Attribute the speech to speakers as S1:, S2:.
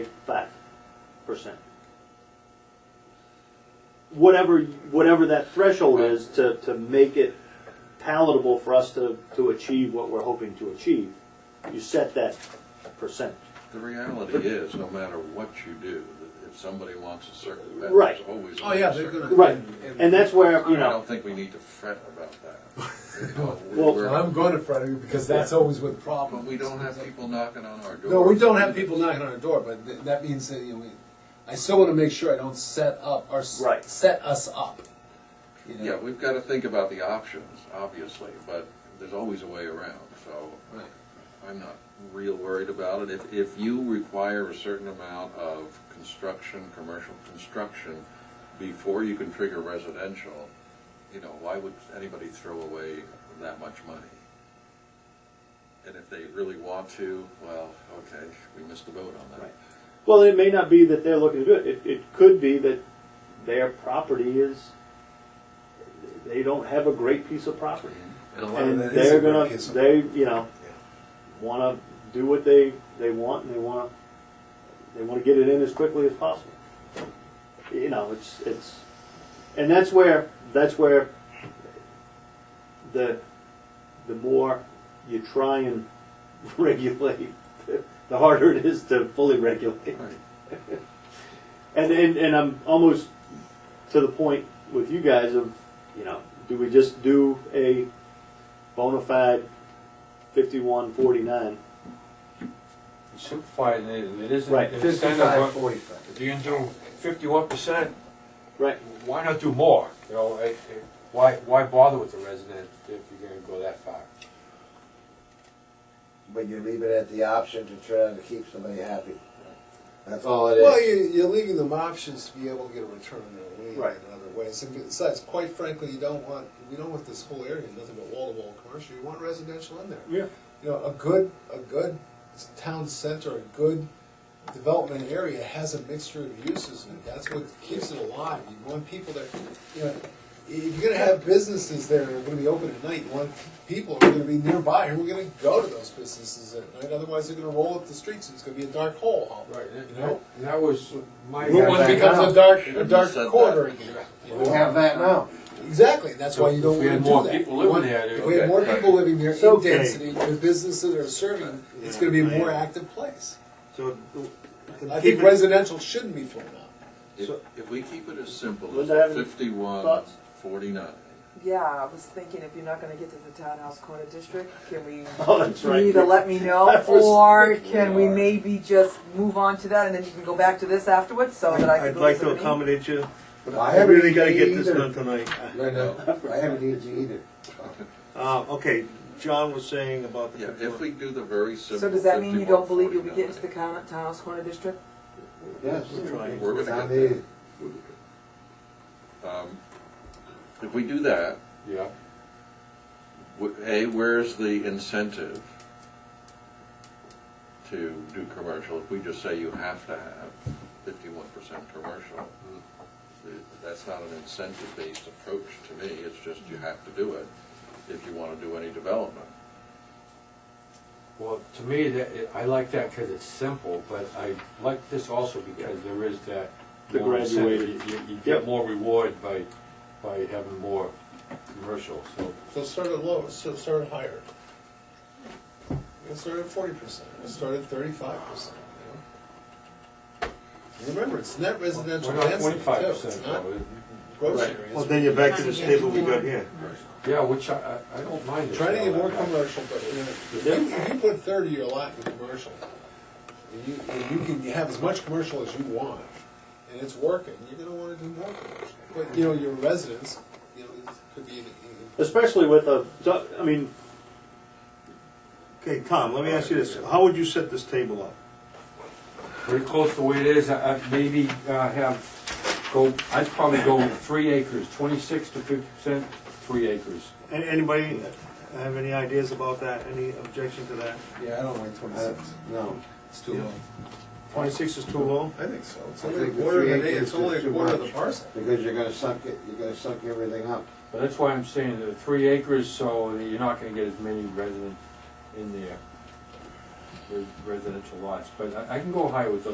S1: five percent. Whatever, whatever that threshold is to, to make it palatable for us to, to achieve what we're hoping to achieve, you set that percent.
S2: The reality is, no matter what you do, that if somebody wants a circuit event,
S1: Right.
S2: there's always.
S3: Oh, yeah,
S2: a
S3: they're
S2: circuit.
S3: gonna.
S1: Right, and that's where, you
S2: I
S1: know,
S2: don't think we need to fret about that. You know,
S1: Well-
S2: we're-
S3: Well, I'm going to Friday because that's always with
S2: But
S3: problems.
S2: we don't have people knocking on our door.
S3: No, we don't have people knocking on our door, but th- that means that, you know, we, I still wanna make sure I don't set up, or s-
S1: Right.
S3: set us up. you know?
S2: Yeah, we've got to think about the options, obviously, but there's always a way around, so
S3: Right.
S2: I'm not real worried about it. If, if you require a certain amount of construction, commercial construction, before you can trigger residential, you know, why would anybody throw away that much money? And if they really want to, well, okay, we missed the boat on
S1: Right.
S2: that.
S1: well, it may not be that they're looking to do it, it, it could be that their property is, they don't have a great piece of property.
S4: And a lot
S1: and
S4: of that is a
S1: they're
S4: great
S1: gonna
S4: piece of-
S1: they you know want to do what they they want and they want to they want to get it in as quickly as possible you know it's it's and that's where that's where the the more you try and regulate the harder it is to fully regulate
S2: Right.
S1: and, and and I'm almost to the point with you guys of, you know, do we just do a bona fide fifty-one forty-nine?
S5: Simplifying it, and it isn't.
S1: Right,
S5: it's kind
S4: Fifty-five,
S5: of a-
S4: forty-five.
S5: If you can do fifty-one percent,
S1: Right.
S5: why not do more? You know, it- it- why, why bother with the resident if you're gonna go that far?
S4: But you leave it at the option to try to keep somebody happy. That's all it
S6: Well,
S4: is.
S6: you, you're leaving them options to be able to get a return on their lead
S1: Right.
S6: in other ways. And besides, quite frankly, you don't want we don't want this whole area nothing but wall to wall commercial. You want residential in there.
S1: Yeah.
S6: You know, a good a good town center, a good development area has a mixture of uses, and that's what keeps it alive. You want people that you know. If you're going to have businesses there that are going to be open at night, you want people who are going to be nearby who are going to go to those businesses at night. Otherwise, they're going to roll up the streets and it's going to be a dark hole. out there, You know?
S5: And that was my.
S4: Route one
S6: One
S4: back
S6: becomes
S4: out.
S6: a dark,
S2: You
S6: a dark
S2: said
S6: corridor
S2: that.
S6: again. you
S4: We
S6: know?
S4: have that now.
S6: Exactly, that's why you
S5: If
S6: don't
S5: we
S6: wanna
S5: had
S6: do that.
S5: more people living
S6: You want-
S5: there,
S6: If we had more
S5: okay.
S6: people living there,
S1: So-
S6: in density, the businesses that are serving, it's gonna be a more active place.
S1: So,
S6: I think residential shouldn't be thrown out.
S2: If,
S1: So-
S2: if we keep it as simple
S1: Linda, have
S2: as
S1: any
S2: fifty-one,
S1: thoughts?
S2: forty-nine,
S7: Yeah, I was thinking if you're not gonna get to the townhouse corner district, can we
S1: Oh, that's right.
S7: either let me
S1: I
S7: know
S1: was
S7: or can we maybe just move on to that and then you can go back to this afterwards so that I can.
S8: I'd like to
S7: listen me?
S8: accommodate you, but
S4: I
S8: I
S4: haven't
S8: really gotta
S4: either.
S8: get this done tonight.
S4: No, no, I haven't used you either.
S8: Uh, okay, John was saying about
S2: Yeah,
S8: the.
S2: if we do the very simple.
S7: So does that mean you
S2: 51,
S7: don't believe you'll be
S2: 49,
S7: getting to the coun- townhouse corner district?
S4: Yes.
S8: We're trying.
S2: We're gonna
S4: It's on
S2: get
S4: the-
S2: there. um, If we do that,
S5: Yeah,
S2: w- A, where's the incentive to do commercial? If we just say you have to have fifty-one percent commercial, th- that's not an incentive-based approach to me, it's just you have to do it if you wanna do any development.
S5: well, to me, that, it- I like that because it's simple, but I like this also because there is that.
S1: The
S5: more incentive.
S1: graduated.
S5: You, you- you
S1: Yep.
S5: get more reward by, by having more commercial, so.
S6: So start at low, so start at higher. You start at forty percent, you start at thirty-five percent, you know? Remember, it's net residential
S5: We're not
S6: density too,
S5: twenty-five percent
S6: it's not
S5: though.
S6: grocery
S1: Right.
S6: areas.
S8: Well, then you're back to this table we got here.
S5: Yeah, which I, I I don't mind. it.
S6: Trying to get more
S5: Yeah, I-
S6: commercial, but you know, if you, if you put thirty of your lot in commercial, and you, and you can have as much commercial as you want, and it's working, you're gonna wanna do more commercial. But, you know, your residents, you know, it could be, in- in-
S1: Especially with a, so, I mean,
S8: Okay, Tom, let me ask you this, how would you set this table up?
S5: pretty close to the way it is, I, I maybe, uh, have, go, I'd probably go three acres, twenty-six to fifty percent, three acres.
S8: A- Anybody have any ideas about that, any objection to that?
S3: Yeah, I don't like
S4: Uh,
S3: twenty-six,
S4: No.
S3: it's too low.
S8: Twenty-six is too low?
S6: I think so, it's
S4: I
S6: only a
S4: think the
S6: quarter
S4: three
S6: of an acre,
S4: acres
S6: it's only
S4: is
S6: a
S4: too
S6: quarter of the
S4: much.
S6: parcel.
S4: Because you're gonna sunk it, you're gonna sunk everything up.
S5: But that's why I'm saying the three acres, so you're not gonna get as many residents in there, with residential lots, but I, I can go high with the